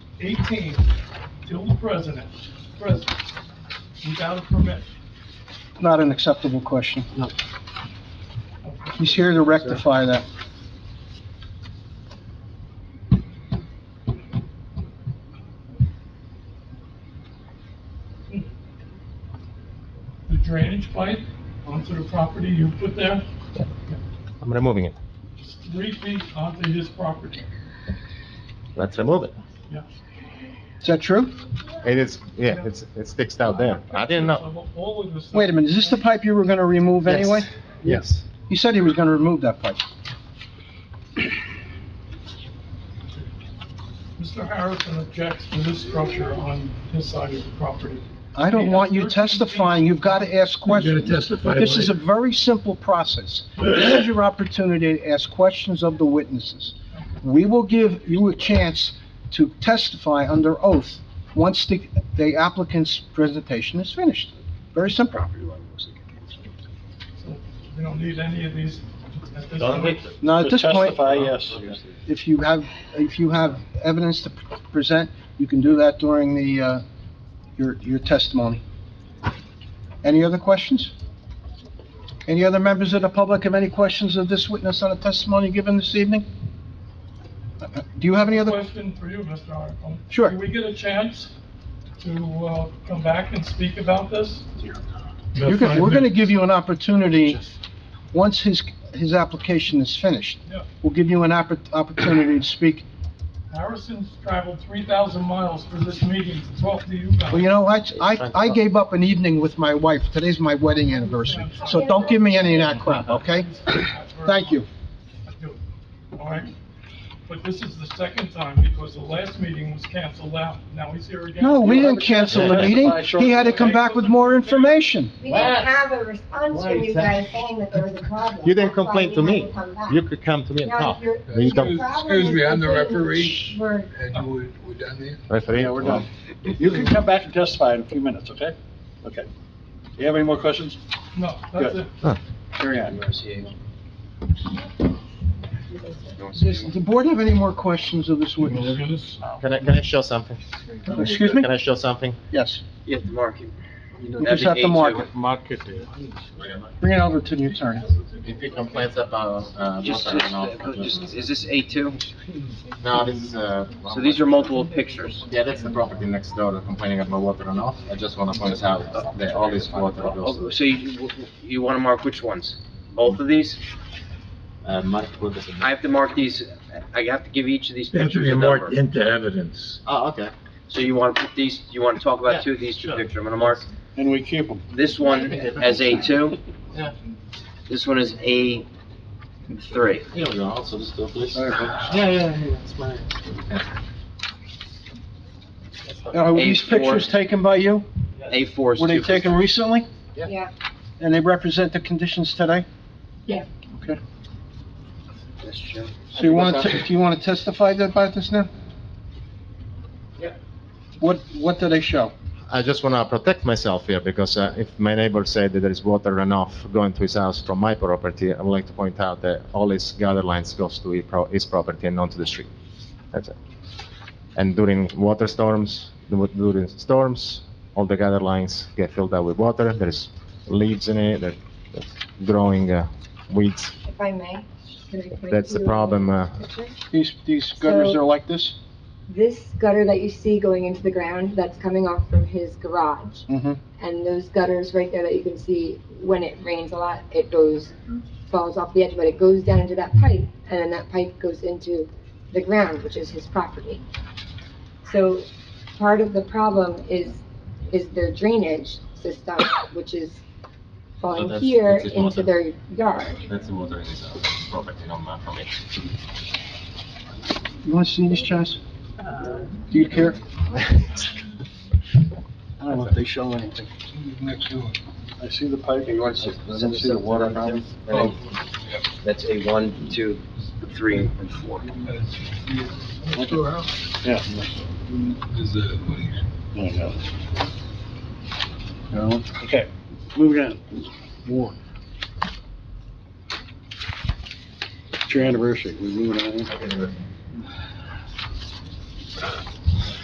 eighteen till the president, president, without a permit. Not an acceptable question. No. He's here to rectify that. The drainage pipe onto the property you put there, I'm removing it. is three feet onto his property. Let's remove it. Yeah. Is that true? It is, yeah, it's, it sticks out there. I didn't know. Of All of this. Wait a minute, is this the pipe you were gonna remove Yes. anyway? Yes. You said he was gonna remove that pipe. Mr. Harrison objects to this structure on his side of the property. I don't want you testifying, you've got to ask questions. testify This is a later. very simple process. This is your opportunity to ask questions of the witnesses. We will give you a chance to testify under oath once the the applicant's presentation is finished. Very simple. So We don't need any of these at this Don't point. wait. Now, at this point, Testify, yes. if you have, if you have evidence to pr- present, you can do that during the, uh, your, your testimony. Any other questions? Any other members of the public have any questions of this witness on the testimony given this evening? Uh, uh, Do you have any other? Question for you, Mr. Harrison. Sure. Do we get a chance to uh, come back and speak about this? You can, we're gonna give you an opportunity, once his, his application is finished. Yeah. We'll give you an oppor- opportunity to speak. Harrison's traveled 3,000 miles for this meeting to talk to you guys. Well, you know, I, I, I gave up an evening with my wife. Today's my wedding anniversary. So don't give me any of that crap, okay? Thank you. I do. All right? But this is the second time because the last meeting was canceled out. Now he's here again. No, we didn't cancel the meeting. He had to come back with more information. We didn't have a response from you guys saying that there was a problem. You didn't That's why complain we to me. haven't come back. You could come to me and Now, talk. if your- You if your don't- problem Excuse is me, I'm the completely- referee. We're- And we're, we're done there? Referee? Yeah, we're done. You can come back and testify in a few minutes, okay? Okay. Do you have any more questions? No, that's it. Carry on. Does the board have any more questions of this witness? Yes. Can I, can I show something? Excuse me? Can I show something? Yes. You have to mark it. You just have to mark it. Market. Bring it over to the attorney. If he complains about, uh, Just, motor and all. just- just- is this A2? No, this is, uh. So these are multiple pictures. Yeah, that's the property next door they're complaining about water and off. I just wanna point out that all this water goes Oh, to, So you, you want to mark which ones? Both of these? uh, market. what is it? I have to mark these, I have to give each of these They have to pictures be a marked number. into evidence. Oh, okay. So you want to put these, you want to talk Yeah, about two of these two sure. pictures? I'm going to mark And we keep them. this one as A2. Yeah. This one is A3. Here we go, also this door, please. Yeah, yeah, yeah, that's mine. Now, Were these pictures taken by you? A4 is two. Were they taken recently? Yeah, And they represent the conditions today? Yeah. Okay. Mr. Chairman. So you want to, do you want to testify about this now? Yeah. What, what do they show? I just want to protect myself here because uh, if my neighbor said that there is water runoff going to his house from my property, I would like to point out that all his gutter lines goes to his pro- his property and not to the street. That's it. And during water storms, du- during storms, all the gutter lines get filled up with water. There's leaves in it, there- there's growing uh, weeds. if I may. can I point That's the to problem, uh, picture? These, these gutters So- are like this? This gutter that you see going into the ground, that's coming off from his garage. Mm-hmm. And those gutters right there that you can see, when it rains a lot, it goes, falls off the edge, but it goes down into that pipe, and then that pipe goes into the ground, which is his property. So part of the problem is, is their drainage system, which is So falling that's- here that's his into water. their yard. That's the water in his house, property, not my property. You want to see these, Chaz? Uh, Do you care? I don't know if they show anything. I see the pipe. You want to I send don't this see the up water to them, now. Tim? And then- That's a one, two, three, and four. Yeah. No. Okay, moving on. One. It's your anniversary, we moving on.